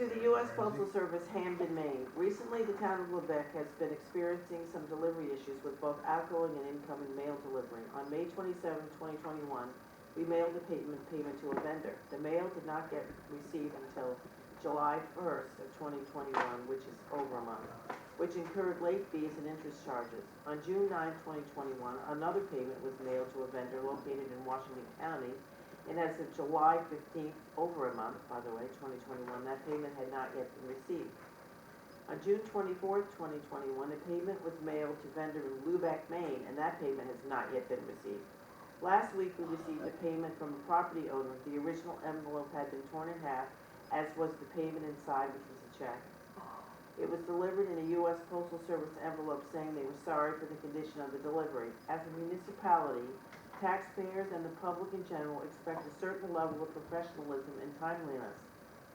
To the U.S. Postal Service, Hamden, Maine. Recently, the town of Lubec has been experiencing some delivery issues with both outgoing and incoming mail delivery. On May 27, 2021, we mailed the payment, payment to a vendor. The mail did not get received until July 1st of 2021, which is over a month, which incurred late fees and interest charges. On June 9, 2021, another payment was mailed to a vendor located in Washington County and as of July fifteenth, over a month, by the way, twenty twenty-one, that payment had not yet been received. On June twenty-fourth, twenty twenty-one, a payment was mailed to vendor in Lubec, Maine, and that payment has not yet been received. Last week, we received a payment from a property owner. The original envelope had been torn in half, as was the payment inside, which was a check. It was delivered in a U.S. Postal Service envelope saying they were sorry for the condition of the delivery. As a municipality, taxpayers and the public in general expect a certain level of professionalism and timeliness.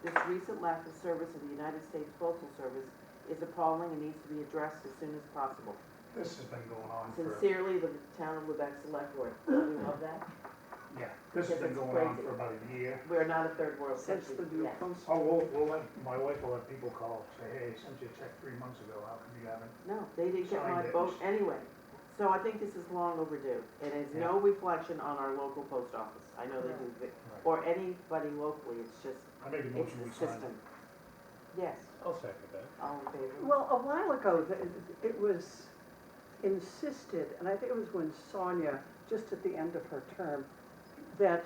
This recent lack of service of the United States Postal Service is appalling and needs to be addressed as soon as possible. This has been going on for, Sincerely, the town of Lubec Select Board. Don't you love that? yeah, this has been Because it's going on crazy. for about a year. We're not a third world Since country the new yet. post, Oh, we'll, we'll let, my wife will let people call, say, hey, I sent you a check three months ago, how come you haven't? No, they didn't get my Signed it. vote anyway. So I think this is long overdue. It is no reflection on our local post office. I know they do, the- or anybody locally, it's just, I made a it's motion, the we signed system. it. Yes, I'll second that. all in favor? well, a while ago, th- it was insisted, and I think it was when Sonia, just at the end of her term, that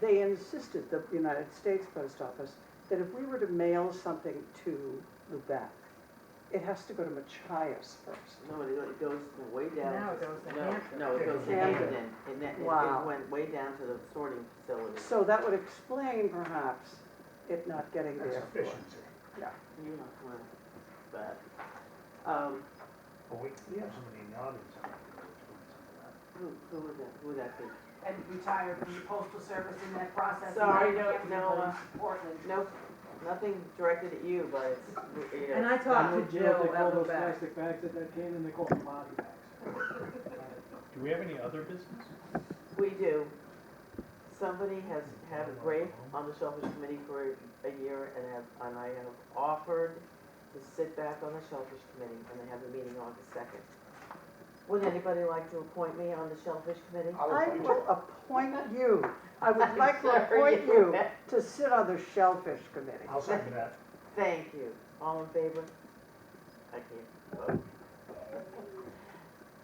they insisted, the United States Post Office, that if we were to mail something to Lubec, it has to go to Machias first. No, it it goes way down. Now it to- goes to no, Hampton. No, it goes to Hampton. Hampton, and that, and it Wow. went way down to the sorting facility. So that would explain perhaps it not getting That's there. efficiency. You're not one, but, um, But we, we have somebody in the audience. I think, that's doing something like who, who would that, who would that be? and retired from the postal service in that process. Sorry, and no- everybody no, uh, in Portland. No, nothing directed at you, but it's, you know. And I talked to You know, Jill They call at Lubec. those plastic bags that that came in, they call them body bags. Do we have any other business? We do. Somebody has had a break on the Shellfish Committee for a year and have, and I have offered to sit back on the Shellfish Committee and they have a meeting August second. Would anybody like to appoint me on the Shellfish Committee? that. I I would like will appoint you, I would like to Sorry, appoint you you bet. to sit on the Shellfish Committee. to- I'll second that. Thank you. All in favor? I can't vote.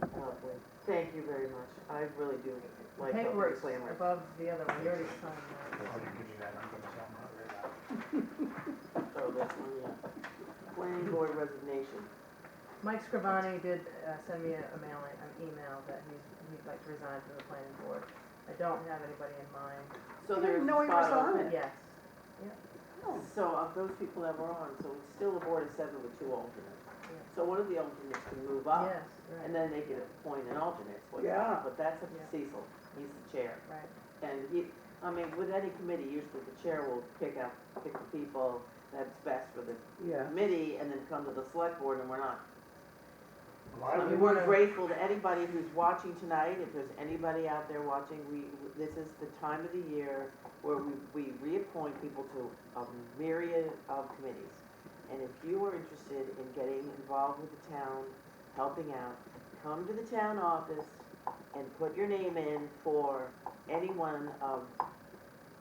Oh, boy. Thank you very much. I really do like helping the Paperwork's clamor. above the other one, you already signed I'll give you that, I'm gonna sound not very loud. Oh, that's one, yeah. Planning board resignation. that. Mike Scrivani did uh, send me a a mail, an email that he's, he'd like to resign from the planning board. I don't have anybody in mind, So I didn't there's a know he was spot on open. it. Oh. yes. So of those people that were on, so it's still a board of seven with two alternates. So one of the alternates can move up, Yes, and then right, they can appoint an alternate. so- Yeah. But that's up to Yeah. Cecil, he's the chair. right. And he, I mean, with any committee, usually the chair will pick out, pick the people that's best for the Yeah. committee, and then come to the select board, and we're not. A lot I of mean, it- we're grateful to anybody who's watching tonight, if there's anybody out there watching, we, this is the time of the year where we, we reappoint people to a myriad of committees. And if you are interested in getting involved with the town, helping out, come to the town office and put your name in for any one of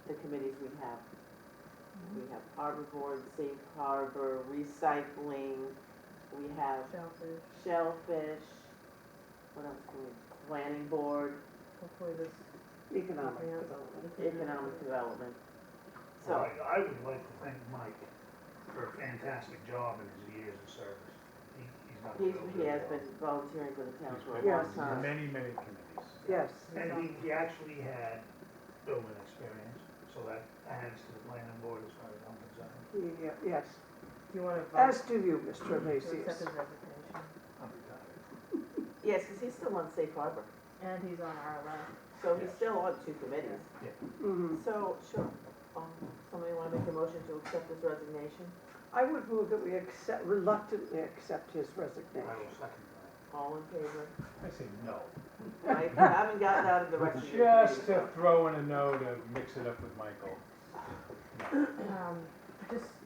the committees we have. Mm-hmm. We have harbor board, safe harbor, recycling, we have Shellfish, shellfish, what else can we, planning board, hopefully this. Economic Yeah. development. economic development. Well, So, I I would like to thank Mike for a fantastic job in his years of service. He, he's not. he's, he has been volunteering for the town for a Yeah. long time. Many, many committees. Yes. And he, he actually had building experience, so that adds to the planning board as far as I'm concerned. Yeah, Yes, Do you want to vote as do you, Mr. to accept Macias. his resignation? I'm retired. Yes, because he's still on safe harbor, And he's on our list. so he's still on two committees. Mhm. So, sure, um, somebody want to make a motion to accept his resignation? I would move that we accept, reluctantly accept his I resignation. will second that. All in favor? I say no. Right, I haven't gotten out of the rest of your committee, Just so- to throw in a no to mix it up with Michael. Um, Just